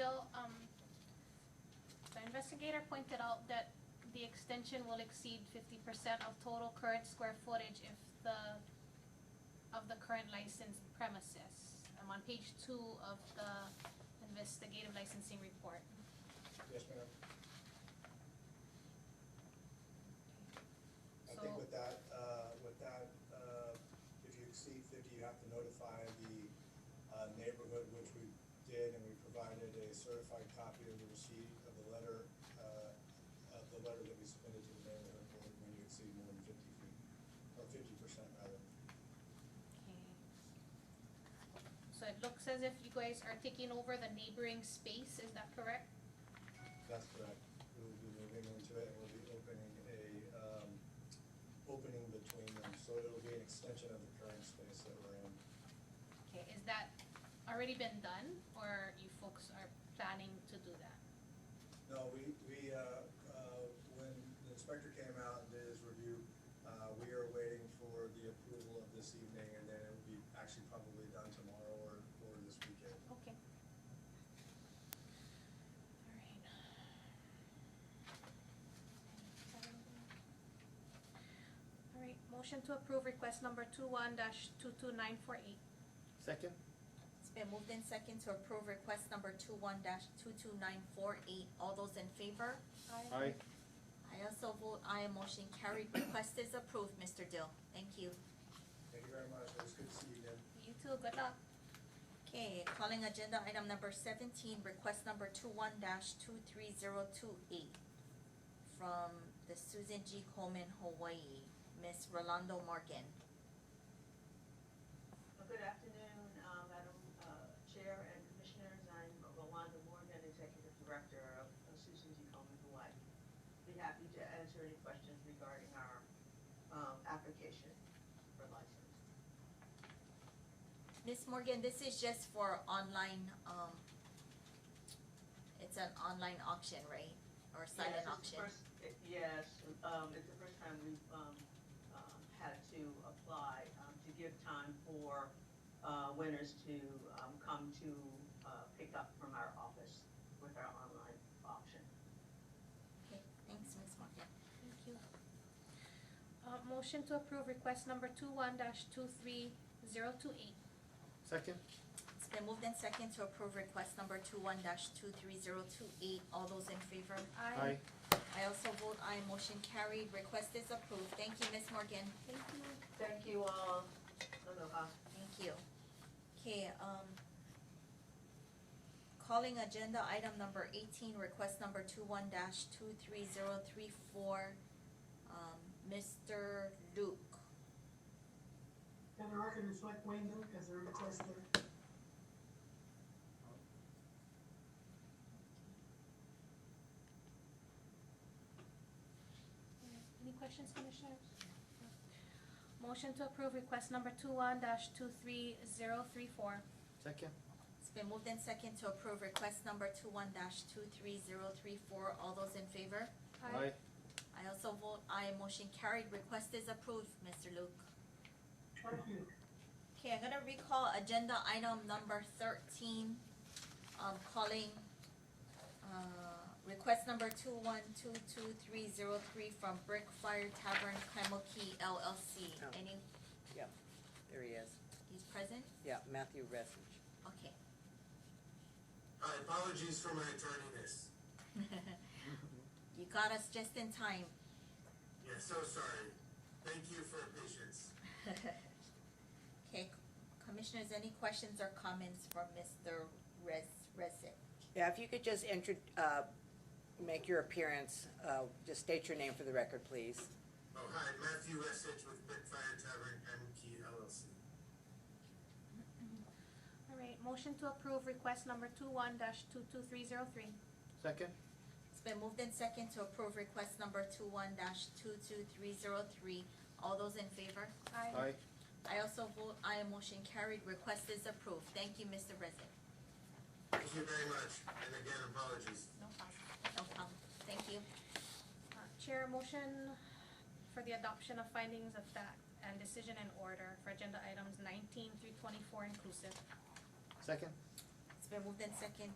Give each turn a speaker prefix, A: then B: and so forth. A: um, investigator pointed out that the extension will exceed fifty percent of total current square footage if the, of the current licensed premises. I'm on page two of the investigative licensing report.
B: Yes, ma'am. I think
A: So-
B: with that, uh, with that, uh, if you exceed fifty, you have to notify the, uh, neighborhood, which we did, and we provided a certified copy of the receipt of the letter, uh, of the letter that we submitted to the neighborhood board when you exceed more than fifty feet, or fifty percent rather.
A: So it looks as if you guys are taking over the neighboring space, is that correct?
B: That's correct. We'll be moving into it, and we'll be opening a, um, opening between them, so it'll be an extension of the current space that we're in.
A: Okay, is that already been done, or you folks are planning to do that?
B: No, we, we, uh, uh, when the inspector came out and did his review, uh, we are waiting for the approval of this evening, and then it will be actually probably done tomorrow or, or this weekend.
A: Okay. Alright. Alright, motion to approve request number two one dash two two nine four eight.
C: Second?
D: It's been moved in second to approve request number two-one dash two-two-nine-four-eight. All those in favor?
C: Aye.
D: I also vote aye, motion carried. Request is approved, Mr. Dill. Thank you.
B: Thank you very much, it was good to see you again.
A: You too, good luck.
D: Okay, calling agenda item number seventeen, request number two-one dash two-three-zero-two-eight from the Susan G. Coleman, Hawaii, Miss Rolando Morgan.
E: Well, Good afternoon, uh, Madam uh, Chair and Commissioners. I'm Rolanda Morgan, Executive Director of of Susan G. Komen Hawaii. Be happy to answer any questions regarding our um, application for license.
D: Miss Morgan, this is just for online, um, it's an online auction, right? Or silent
E: Yes, it's the
D: auction?
E: first- it- Yes, um, it's the first time we've, um, um, had to apply, um, to give time for, uh, winners to, um, come to, uh, pick up from our office with our online auction.
D: Okay, thanks, Ms. Morgan.
A: Thank you. Uh, motion to approve request number two one dash two three zero two eight.
C: Second?
D: It's been moved in second to approve request number two-one dash two-three-zero-two-eight. All those in favor?
C: Aye.
D: I also vote aye, motion carried. Request is approved. Thank you, Ms. Morgan.
A: Thank you.
E: Thank you all. Aloha.
D: Thank you. Okay, um, calling agenda item number eighteen, request number two-one dash two-three-zero-three-four, um, Mr. Luke.
F: Can the record reflect Wayne Luke as a requester?
A: Any questions, Commissioners? Motion to approve request number two one dash two three zero three four.
C: Second?
D: It's been moved in second to approve request number two-one dash two-three-zero-three-four. All those in favor? I also vote aye, motion carried. Request is approved, Mr. Luke.
F: Thank you.
D: Okay, I'm gonna recall agenda item number thirteen, um, calling, uh, request number two one two two three zero three from Brick Fire Tavern Kaimuki LLC.
G: Oh.
D: Any,
G: There he is.
D: he's present?
G: Yeah, Matthew Resich.
D: Okay.
H: Hi, apologies for my tardiness.
D: You got us just in time.
H: Yeah, so sorry. Thank you for your patience.
D: Okay, commissioners, any questions or comments for Mr. Res, Resik?
G: Yeah, if you could just intro, uh, make your appearance, uh, just state your name for the record, please.
H: Oh, hi, Matthew Resich with Bitfire Tavern MK LLC.
A: All right, motion to approve request number two one dash two two three zero three.
C: Second?
D: It's been moved in second to approve request number two one dash two two three zero three. All those in favor?
C: Aye.
D: I also vote aye, motion carried, request is approved. Thank you, Mr. Resnick.
H: Thank you very much, and again, apologies.
A: No problem.
D: No problem, thank you.
A: Uh, Chair, motion for the adoption of findings of fact and decision and order for agenda items nineteen through twenty-four inclusive.
C: Second?
D: It's been moved in second